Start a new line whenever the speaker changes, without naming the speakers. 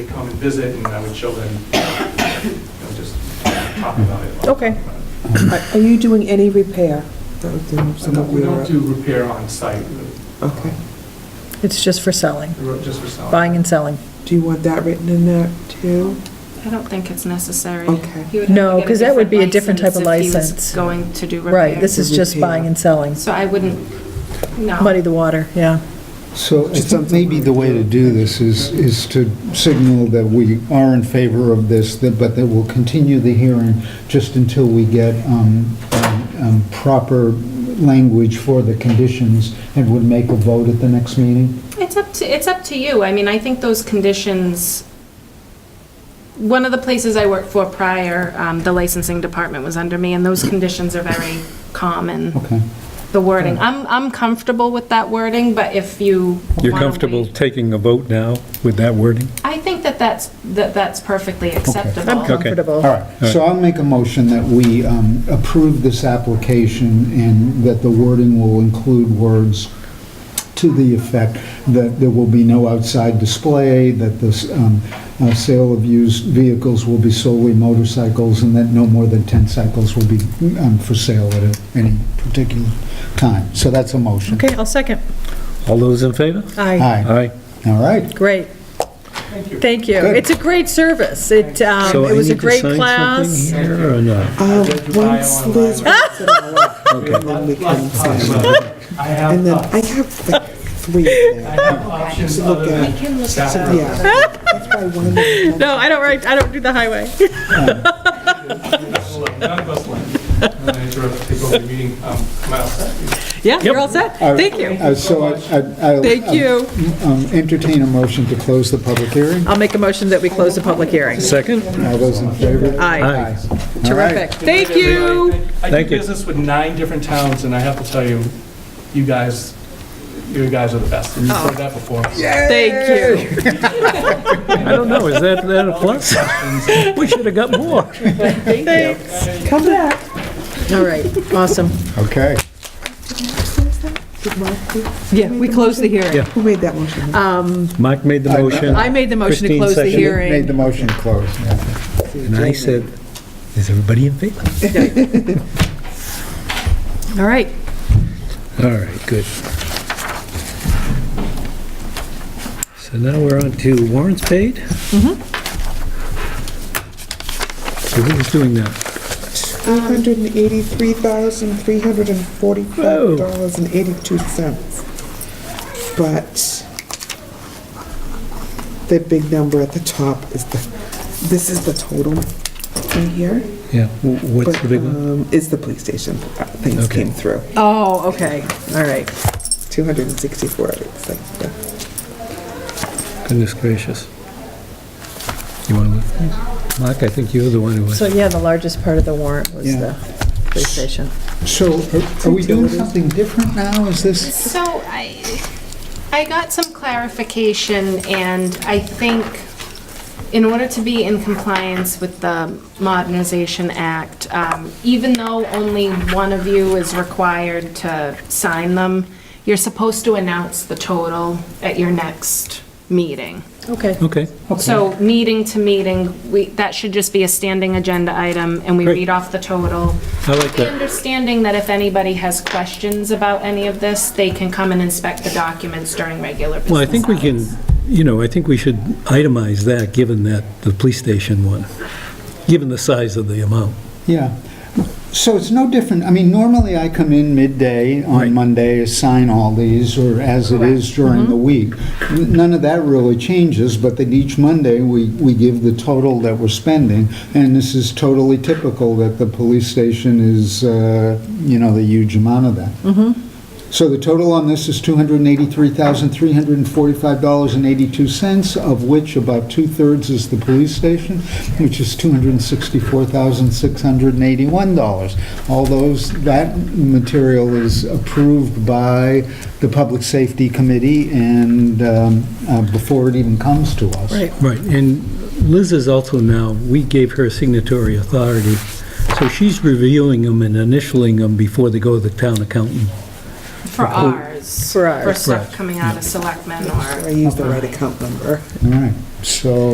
They come and visit, and I would show them, you know, just talk about it.
Okay. Are are you doing any repair?
That would do
So
some
no,
of
We don't
your,
do repair on site,
okay.
It's just for selling,
we're just for selling.
buying and selling.
Do you want that written in there too?
I don't think it's necessary.
Okay.
He would have to
No,
get
'cause that would be a different type of
If he
license.
was going to do repairs.
Right, this is just buying and selling.
So I wouldn't, no.
Muddy the water, yeah.
So I think maybe the way to do this is, is to signal that we are in favor of this, that- but that we'll continue the hearing just until we get um, um, um, proper language for the conditions and would make a vote at the next meeting?
It's up to, it's up to you. I mean, I think those conditions, one of the places I worked for prior, um, the licensing department was under me, and those conditions are very common,
Okay.
the wording. I'm, I'm comfortable with that wording, but if you.
You're
wanna
comfortable
wait-
taking a vote now with that wording?
I think that that's, that that's perfectly
I'm
acceptable.
comfortable.
All right, so I'll make a motion that we um, approve this application and that the wording will include words to the effect that there will be no outside display, that this um, uh, sale of used vehicles will be solely motorcycles, and that no more than 10 cycles will be um, for sale at a- any particular time. So that's a motion.
Okay, I'll second.
All those in favor?
Aye,
Aye,
Aye.
all right.
great.
Thank you.
Thank you.
Good.
It's a great service. It, um,
So
it
I
was a
need to
great
sign
class.
something here or not?
Um,
read your bio
Once Liz
online.
writes it all up,
We have
and then we
lots-
can
lots of
sign.
options. I have,
And then
uh,
I have like three in
I
there.
have options
Look
other
at-
than
We
staff.
So, yeah. That's why one of them-
No, I don't write, I don't do the highway.
None of us like, I'm gonna interrupt, take over the meeting. Um, am I all set?
Yeah, you're all set?
All right.
Thank you.
Uh, So I- I- I'll
Thank you.
um, entertain a motion to close the public hearing.
I'll make a motion that we close the public hearing.
Second?
All those in favor?
Aye,
Aye.
All right.
terrific. Thank you.
I do
Thank you.
business with nine different towns, and I have to tell you, you guys, you guys are the best. You've heard that before.
Thank you.
I don't know, is that, that a plus? We should have got more.
Thanks.
Come back.
All right, awesome.
Okay.
Did Mark do-
Yeah, we close the hearing.
Yeah.
Who made that motion?
Mike made the motion.
I made the motion to
Christine
close the
seconded.
hearing.
Made the motion to close, yeah.
And I said, is everybody in favor?
All right.
All right, good. So now we're on to warrants paid? Mm-hmm. So who's doing that?
$183,345.82. But the big number at the top is the, this is the total in here.
Yeah, wh- what's
but,
the big one?
um, Is the police station. Uh, Things
Okay.
came through.
Oh, okay, all right.
264, it's like the-
Goodness gracious. You want to look? please? Mark, I think you're the one who was.
So, yeah, the largest part of the warrant was
Yeah.
the police station.
So are- are we doing something different now? Is this?
So I, I got some clarification, and I think in order to be in compliance with the Modernization Act, um, even though only one of you is required to sign them, you're supposed to announce the total at your next meeting.
Okay.
Okay,
So meeting to meeting, we, that should just be a standing agenda item, and we
Great.
read off the total.
I like
The
that.
understanding that if anybody has questions about any of this, they can come and inspect the documents during regular business
Well, I think we can,
hours.
you know, I think we should itemize that, given that, the police station one, given the size of the amount.
Yeah. So it's no different, I mean, normally I come in midday
Right.
on Monday, assign all these, or as it is during the week.
Mm-hmm.
N- None of that really changes, but then each Monday, we, we give the total that we're spending, and this is totally typical that the police station is, uh, you know, the huge amount of that. So the total on this is $283,345.82, of which about two-thirds is the police station, which is $264,681. All those, that material is approved by the Public Safety Committee and um, uh, before it even comes to us.
Right.
Right, and Liz is also now, we gave her signatory authority, so she's reviewing them and initialing them before they go to the town accountant.
For ours.
For ours.
For stuff
Right.
coming out of selectmen or.
I used the right account number.
All right, so